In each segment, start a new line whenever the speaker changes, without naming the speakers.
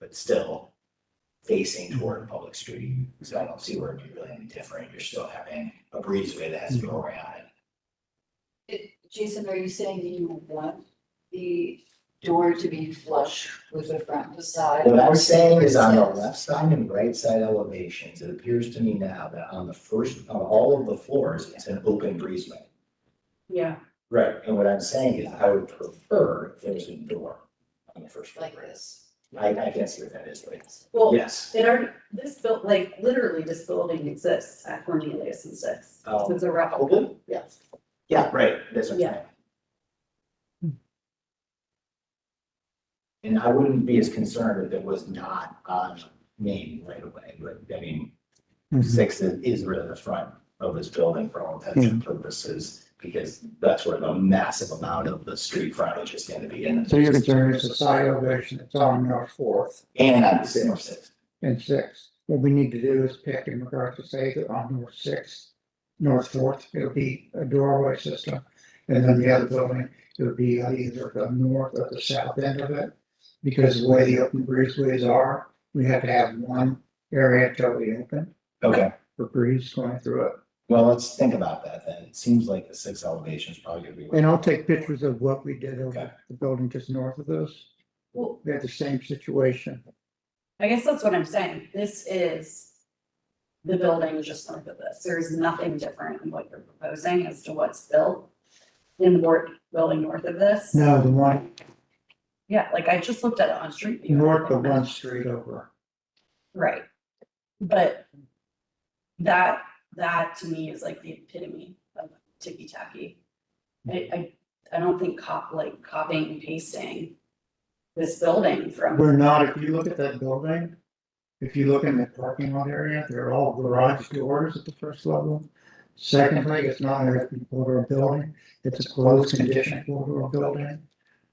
but still facing toward a public street. So I don't see where it'd be really any different. You're still having a breezeway that has to go around it.
Jason, are you saying that you want the door to be flush with the front facade?
What I'm saying is on the left side and right side elevations, it appears to me now that on the first, on all of the floors, it's an open breezeway.
Yeah.
Right. And what I'm saying is I would prefer if there was a door on the first floor.
Like this.
I, I can see what that is, but
Well,
yes.
it already, this built, like, literally this building exists at Cornelius and Six.
Oh.
It's a replica.
Open?
Yes.
Yeah, right, that's what I'm saying. And I wouldn't be as concerned if it was not on Main right away, but I mean,
Mm-hmm.
six is, is really the front of this building for all intents and purposes. Because that's where the massive amount of the street frontage is gonna be in.
So your concern is the side elevation that's on North Fourth
And on December sixth,
and Sixth. What we need to do is pick in regards to say that on North Sixth, North Fourth, it'll be a doorway system. And then the other building, it'll be on either the north or the south end of it. Because the way the open breezeways are, we have to have one area totally open
okay,
for breeze going through it.
well, let's think about that then, it seems like the six elevation is probably gonna be.
And I'll take pictures of what we did
Okay.
over the building just north of this.
Well,
We had the same situation.
I guess that's what I'm saying. This is the building just north of this. There's nothing different in what you're proposing as to what's built in the board building north of this.
No, the one
Yeah, like I just looked at it on Street View.
north of one street over.
Right. But that, that to me is like the epitome of ticky tacky. I, I, I don't think cop, like copying and pasting this building from,
We're not, if you look at that building, if you look in the parking lot area, they're all garage doors at the first level. Secondly, it's not a open corridor building, it's a closed condition corridor building.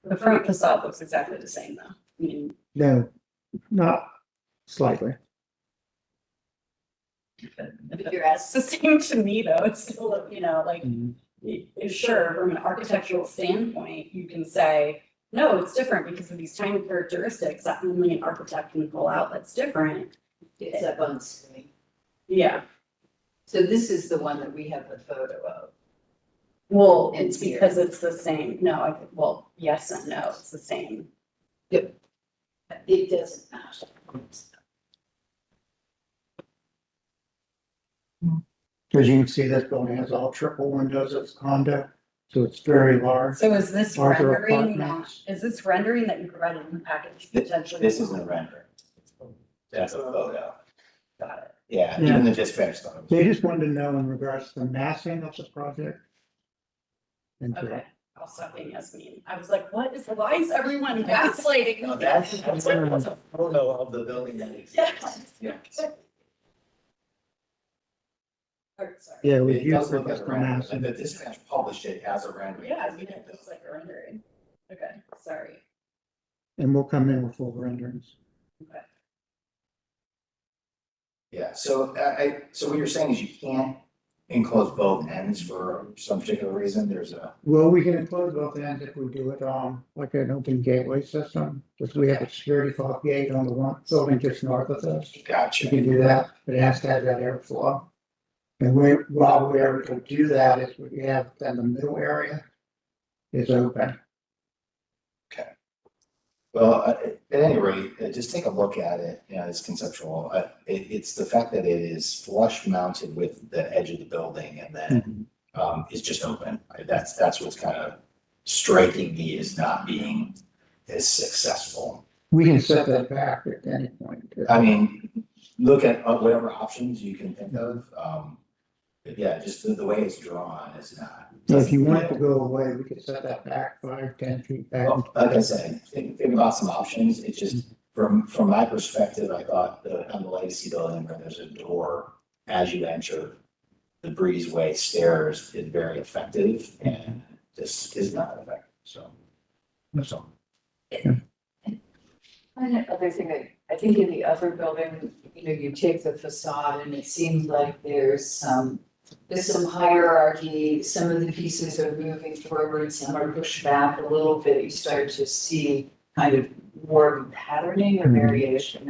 the front facade looks exactly the same though. I mean,
No, not slightly.
if you're assisting to me though, it's still, you know, like, y- sure, from an architectural standpoint, you can say, no, it's different because of these tiny characteristics that only an architect can pull out that's different.
It's up on screen.
Yeah,
So this is the one that we have the photo of.
Well,
And
it's
here.
because it's the same, no, I, well, yes and no, it's the same.
It doesn't match.
As you can see, this building has all triple windows, it's condo, so it's very large.
So is this
Larger
rendering that,
apartments.
is this rendering that you provided in the package
Th-
potentially?
This isn't a render. That's a photo.
Got it.
Yeah,
Yeah.
even the dispatch thought it was-
They just wanted to know in regards to the massing of the project. And to
Okay, I'll stop being yes mean. I was like, what is, why is everyone gaslighting?
No,
me?
Oh, that's, that's a photo of the building that exists. Yeah.
Or, sorry.
Yeah, we
It
use
does
the
look like a render,
mass.
and the dispatch published it as a render.
Yeah, I mean, it looks like a rendering. Okay, sorry.
And we'll come in with full renderings.
Yeah, so I, I, so what you're saying is you can't enclose both ends for some particular reason, there's a,
Well, we can enclose both ends if we do it, um, like an open gateway system, because we have a security fob gate on the one building just north of us. You
gotcha.
can do that, but it has to have that airflow. And we, while we're able to do that, is we have, then the middle area is open.
Well, uh, at any rate, uh, just take a look at it, you know, it's conceptual, uh, it, it's the fact that it is flush mounted with the edge of the building and then
Mm-hmm.
um, is just open. I- That's, that's what's kind of striking me as not being as successful.
We can set that back at any point.
I mean, look at uh, whatever options you can think of. Um, but yeah, just the, the way it's drawn is not.
So if you want it to go away, we could set that back five, ten feet back.
Well, Like I said, think, think about some options. It's just, from, from my perspective, I thought the, on the legacy building where there's a door as you enter, the breezeway stairs is very effective and this is not effective, so. That's all.
And another thing, I, I think in the other building, you know, you take the facade and it seems like there's some, there's some hierarchy, some of the pieces are moving forward, some are pushed back a little bit, you start to see kind of more patterning or variation